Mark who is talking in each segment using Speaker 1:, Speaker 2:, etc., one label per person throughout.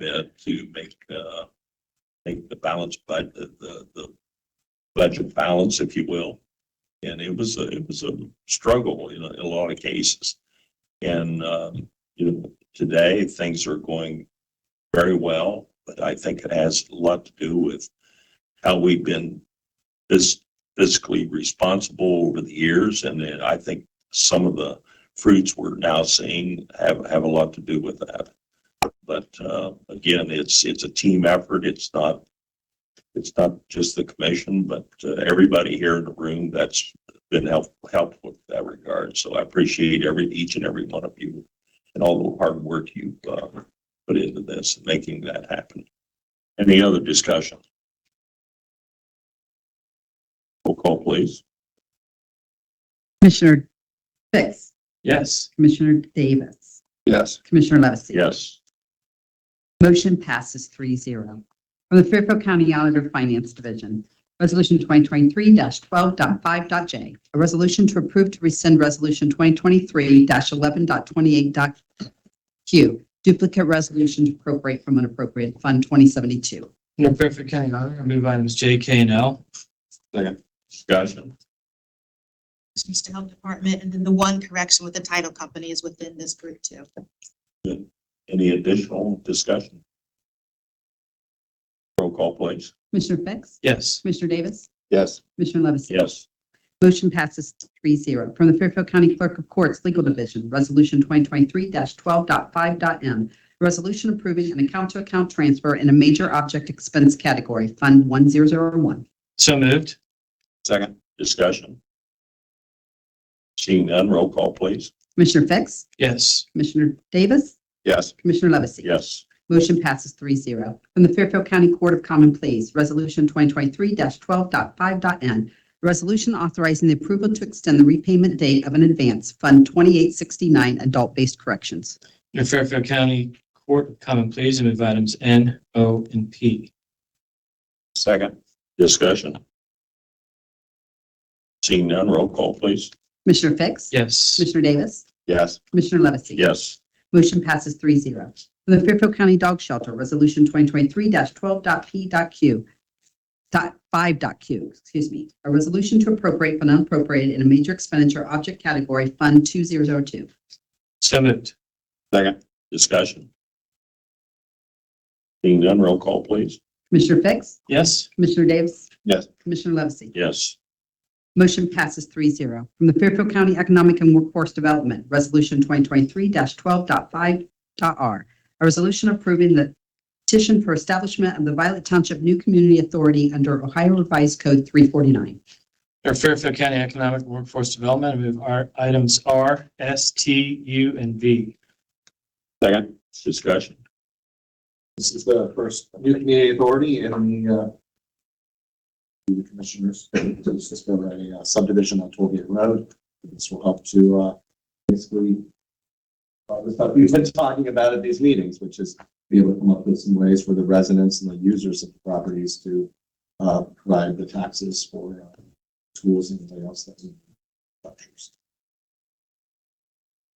Speaker 1: bit to make, uh, make the balance, but the, the, the budget balance, if you will. And it was, a it was a struggle in a, in a lot of cases. And, um, you know, today things are going very well, but I think it has a lot to do with how we've been fis- fiscally responsible over the years. And then I think some of the fruits we're now seeing have, have a lot to do with that. But uh, again, it's, it's a team effort. It's not, it's not just the commission, but uh, everybody here in the room that's been help, helpful in that regard. So I appreciate every, each and every one of you and all the hard work you've uh, put into this, and making that happen. Any other discussion? Roll call, please.
Speaker 2: Commissioner Fix,
Speaker 1: Yes.
Speaker 2: Commissioner Davis,
Speaker 1: Yes.
Speaker 2: Commissioner Levesey.
Speaker 1: Yes.
Speaker 2: Motion passes 3-0 From the Fairfield County Auditor Finance Division, Resolution 2023-12.5.j, a resolution to approve to rescind Resolution 2023-11.28.q, duplicate resolution to appropriate from unappropriate Fund 2072.
Speaker 3: Under Fairfield County Auditor, I move items J, K, and L.
Speaker 1: Discussion.
Speaker 4: Needs to Health Department, and then the one correction with the title company is within this group too.
Speaker 1: Any additional discussion? Roll call, please.
Speaker 2: Commissioner Fix?
Speaker 3: Yes.
Speaker 2: Commissioner Davis?
Speaker 1: Yes.
Speaker 2: Commissioner Levesey?
Speaker 1: Yes.
Speaker 2: Motion passes 3-0 From the Fairfield County Clerk of Courts Legal Division, Resolution 2023-12.5.m. a Resolution approving an account-to-account transfer in a major object expense category, Fund 1001.
Speaker 3: So moved.
Speaker 1: Second. Discussion. Seeing none, roll call, please.
Speaker 2: Commissioner Fix?
Speaker 3: Yes.
Speaker 2: Commissioner Davis?
Speaker 1: Yes.
Speaker 2: Commissioner Levesey?
Speaker 1: Yes.
Speaker 2: Motion passes 3-0 From the Fairfield County Court of Common Pleas, Resolution 2023-12.5.n. a Resolution authorizing the approval to extend the repayment date of an advance, Fund 2869, Adult-Based Corrections.
Speaker 3: Under Fairfield County Court of Common Pleas, I move items N, O, and P.
Speaker 1: Second. Discussion. Seeing none, roll call, please.
Speaker 2: Commissioner Fix?
Speaker 3: Yes.
Speaker 2: Commissioner Davis?
Speaker 1: Yes.
Speaker 2: Commissioner Levesey?
Speaker 1: Yes.
Speaker 2: Motion passes 3-0 From the Fairfield County Dog Shelter, Resolution 2023-12.p.q. Dot five dot Q, excuse me, a resolution to appropriate from unappropriated in a major expenditure object category, Fund 2002.
Speaker 3: So moved.
Speaker 1: Second. Discussion. Seeing none, roll call, please.
Speaker 2: Commissioner Fix?
Speaker 3: Yes.
Speaker 2: Commissioner Davis?
Speaker 1: Yes.
Speaker 2: Commissioner Levesey?
Speaker 1: Yes.
Speaker 2: Motion passes 3-0 From the Fairfield County Economic and Workforce Development, Resolution 2023-12.5.r. A resolution approving the petition for establishment of the Violet Township New Community Authority under Ohio Revised Code 349.
Speaker 3: Under Fairfield County Economic and Workforce Development, I move our items R, S, T, U, and V.
Speaker 1: Second. Discussion.
Speaker 5: This is the first new community authority in the, uh, the commissioners, this has been a uh, subdivision on Tollgate Road. This will help to, uh, basically, uh, the stuff we've been talking about at these meetings, which is be able to come up with some ways for the residents and the users of the properties to, uh, provide the taxes for, uh, tools and anything else that we structures.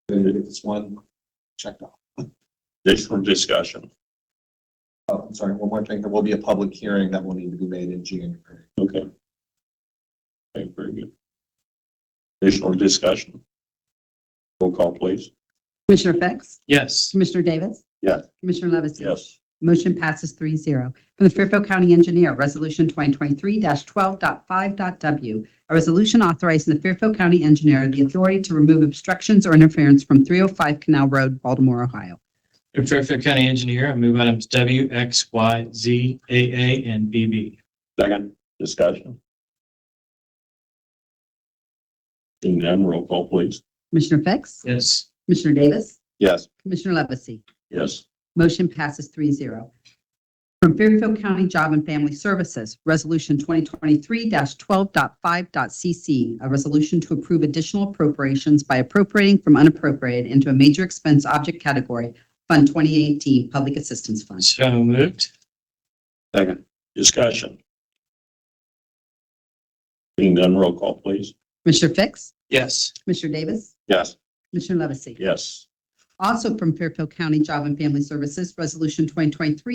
Speaker 5: Then we get this one checked off.
Speaker 1: Additional discussion.
Speaker 5: Oh, I'm sorry, one more thing. There will be a public hearing that will need to be made in January.
Speaker 1: Okay. Okay, very good. Additional discussion. Roll call, please.
Speaker 2: Commissioner Fix?
Speaker 3: Yes.
Speaker 2: Commissioner Davis?
Speaker 1: Yes.
Speaker 2: Commissioner Levesey?
Speaker 1: Yes.
Speaker 2: Motion passes 3-0 From the Fairfield County Engineer, Resolution 2023-12.5.w. A resolution authorizing the Fairfield County Engineer the authority to remove obstructions or interference from 305 Canal Road, Baltimore, Ohio.
Speaker 3: Under Fairfield County Engineer, I move items W, X, Y, Z, A, A, and B, B.
Speaker 1: Second. Discussion. Seeing none, roll call, please.
Speaker 2: Commissioner Fix?
Speaker 3: Yes.
Speaker 2: Commissioner Davis?
Speaker 1: Yes.
Speaker 2: Commissioner Levesey?
Speaker 1: Yes.
Speaker 2: Motion passes 3-0 From Fairfield County Job and Family Services, Resolution 2023-12.5.c.c., a resolution to approve additional appropriations by appropriating from unappropriated into a major expense object category, Fund 2018 Public Assistance Fund.
Speaker 3: So moved.
Speaker 1: Second. Discussion. Seeing none, roll call, please.
Speaker 2: Commissioner Fix?
Speaker 3: Yes.
Speaker 2: Commissioner Davis?
Speaker 1: Yes.
Speaker 2: Commissioner Levesey?
Speaker 1: Yes.
Speaker 2: Also from Fairfield County Job and Family Services, Resolution 2023